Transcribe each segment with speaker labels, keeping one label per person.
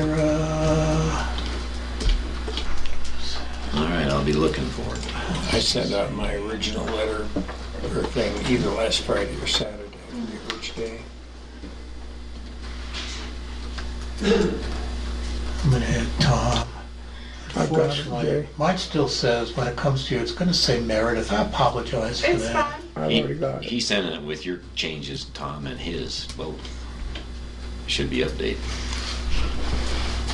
Speaker 1: Kara.
Speaker 2: All right, I'll be looking for it.
Speaker 1: I sent out my original letter or thing either last Friday or Saturday, I forget which day.
Speaker 3: I'm gonna hit Tom.
Speaker 1: I've got it, Jay.
Speaker 3: Unfortunately, mine still says, when it comes to you, it's gonna say Meredith. I apologize for
Speaker 4: It's fine.
Speaker 3: that.
Speaker 1: I've
Speaker 2: He-
Speaker 1: already got
Speaker 2: He
Speaker 1: it.
Speaker 2: sent it with your changes, Tom, and his, both. Should be updated.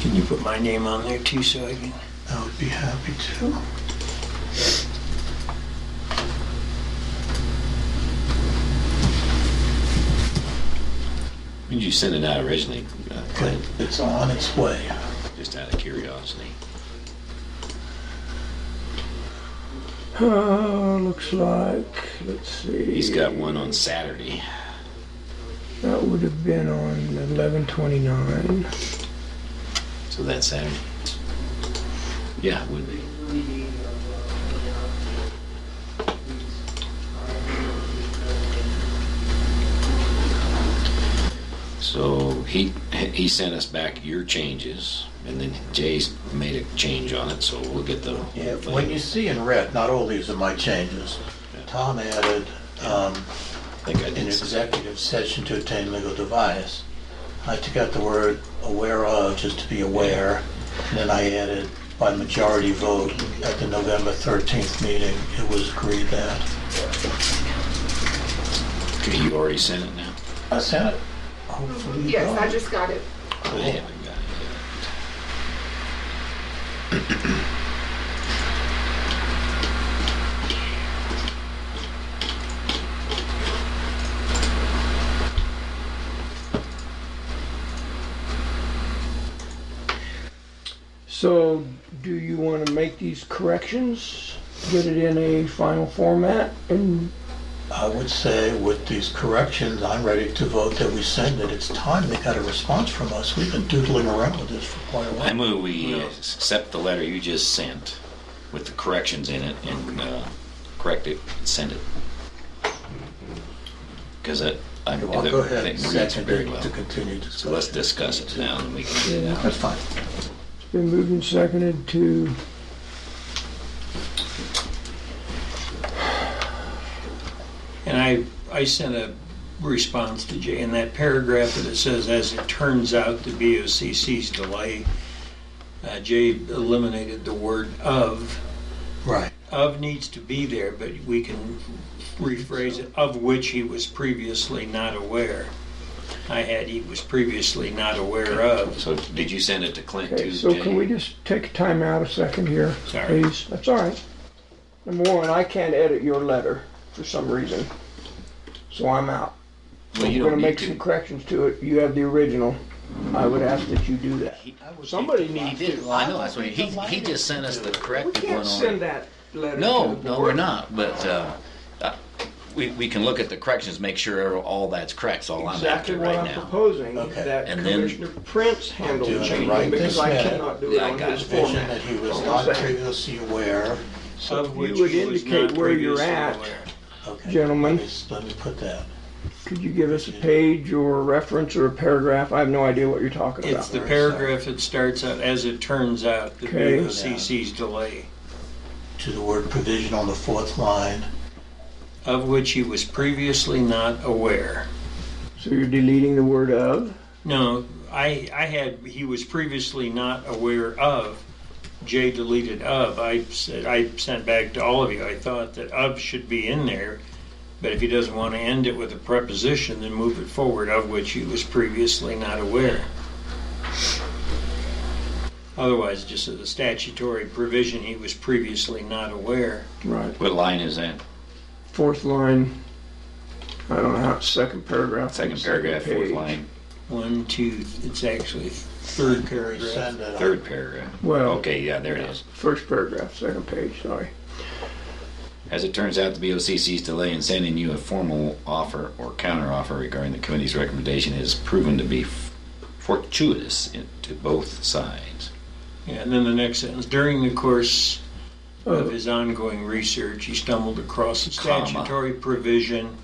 Speaker 1: Can you put my name on there too, so I can?
Speaker 3: I would be happy to.
Speaker 2: When did you send it out originally, uh,
Speaker 3: Good,
Speaker 2: Clint?
Speaker 3: it's on its way.
Speaker 2: Just out of curiosity.
Speaker 1: Uh, looks like, let's see.
Speaker 2: He's got one on Saturday.
Speaker 1: That would have been on eleven twenty-nine.
Speaker 2: So that's Saturday. Yeah, it would be. So he he sent us back your changes, and then Jay's made a change on it. So we'll get the
Speaker 3: Yeah, when you see in red, not all these are my changes. Tom added, um,
Speaker 2: I think I
Speaker 3: in
Speaker 2: did some-
Speaker 3: executive session to obtain legal advice. I took out the word aware of, just to be aware, and then I added by majority vote at the November 13th meeting, it was agreed that.
Speaker 2: Okay, you already sent it now.
Speaker 3: I sent it. Hopefully you
Speaker 4: Yes,
Speaker 3: got
Speaker 4: I
Speaker 3: it.
Speaker 4: just got it.
Speaker 2: I haven't got it
Speaker 1: So, do you want to make these corrections? Get it in a final format and
Speaker 3: I would say with these corrections, I'm ready to vote that we send it. It's time they got a response from us. We've been doodling around with this for quite a
Speaker 2: yet. I
Speaker 3: while.
Speaker 2: move we accept the letter you just sent with the corrections in it and uh, correct it and send it. Because it, I
Speaker 3: Well, I'll go ahead and
Speaker 2: think reads
Speaker 3: second
Speaker 2: very
Speaker 3: it
Speaker 2: well.
Speaker 3: to continue
Speaker 2: So let's
Speaker 3: discussion.
Speaker 2: discuss it now and we can get it out.
Speaker 3: That's fine.
Speaker 1: it's been moved and seconded to
Speaker 5: And I, I sent a response to Jay, in that paragraph that it says, as it turns out, the BOCC's delay, uh, Jay eliminated the word of.
Speaker 3: Right.
Speaker 5: Of needs to be there, but we can rephrase it, of which he was previously not aware. I had he was previously not aware of.
Speaker 2: So did you send it to Clint
Speaker 1: Okay,
Speaker 2: too,
Speaker 1: so can we
Speaker 2: Jay?
Speaker 1: just take time out a second here,
Speaker 5: Sorry.
Speaker 1: please? That's all right. Number one, I can't edit your letter for some reason, so I'm out.
Speaker 2: Well, you
Speaker 1: We're
Speaker 2: don't need
Speaker 1: gonna make some
Speaker 2: to.
Speaker 1: corrections to it. You have the original. I would ask that you do that. Somebody
Speaker 2: He
Speaker 1: needs
Speaker 2: did,
Speaker 1: to.
Speaker 2: I know, that's what, he, he just sent us the
Speaker 1: We
Speaker 2: corrected one
Speaker 1: can't send
Speaker 2: on.
Speaker 1: that letter.
Speaker 2: No,
Speaker 1: to the
Speaker 2: no,
Speaker 1: board.
Speaker 2: we're not, but, uh, uh, we, we can look at the corrections, make sure all that's correct, It's all I'm
Speaker 1: Exactly
Speaker 2: after
Speaker 1: what
Speaker 2: right
Speaker 1: I'm
Speaker 2: now.
Speaker 1: proposing,
Speaker 3: Okay.
Speaker 1: that
Speaker 2: And then-
Speaker 1: Commissioner Prince handled
Speaker 3: doing
Speaker 1: the
Speaker 3: it
Speaker 1: change
Speaker 3: right
Speaker 1: because
Speaker 3: this
Speaker 1: I
Speaker 3: minute.
Speaker 1: cannot do it
Speaker 2: Yeah, I
Speaker 1: on
Speaker 2: got
Speaker 1: his
Speaker 2: it.
Speaker 3: Vision
Speaker 1: format.
Speaker 3: that he was
Speaker 1: Hold on a
Speaker 3: not
Speaker 1: second.
Speaker 3: previously aware.
Speaker 5: Of
Speaker 1: You
Speaker 5: which
Speaker 1: would
Speaker 5: he was
Speaker 1: indicate
Speaker 5: not
Speaker 1: where you're
Speaker 5: previously
Speaker 1: at.
Speaker 5: aware.
Speaker 3: Okay.
Speaker 1: Gentlemen.
Speaker 3: Let me- Let me put that.
Speaker 1: Could you give us a page or a reference or a paragraph? I have no idea what you're talking about.
Speaker 5: It's the paragraph that starts out, as it turns out, the
Speaker 1: Okay.
Speaker 5: BOCC's delay.
Speaker 3: to the word provision on the fourth line.
Speaker 5: of which he was previously not aware.
Speaker 1: So you're deleting the word of?
Speaker 5: No, I, I had, he was previously not aware of, Jay deleted of. I said, I sent back to all of you, I thought that of should be in there, but if he doesn't want to end it with a preposition, then move it forward, of which he was previously not aware. Otherwise, just as a statutory provision, he was previously not aware.
Speaker 1: Right.
Speaker 2: What line is that?
Speaker 1: Fourth line. I don't know how, second paragraph.
Speaker 2: Second paragraph, fourth
Speaker 1: page.
Speaker 2: line,
Speaker 5: One, two, it's actually third paragraph.
Speaker 3: Send it.
Speaker 2: third paragraph.
Speaker 1: Well,
Speaker 2: Okay, yeah, there it is.
Speaker 1: first paragraph, second page, sorry.
Speaker 2: As it turns out, the BOCC's delay in sending you a formal offer or counteroffer regarding the committee's recommendation has proven to be f- fortuitous in- to both sides.
Speaker 5: Yeah, and then the next sentence, during the course of his ongoing research, he stumbled across a
Speaker 2: Comma.
Speaker 5: statutory provision,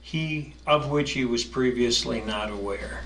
Speaker 5: he, of which he was previously not aware.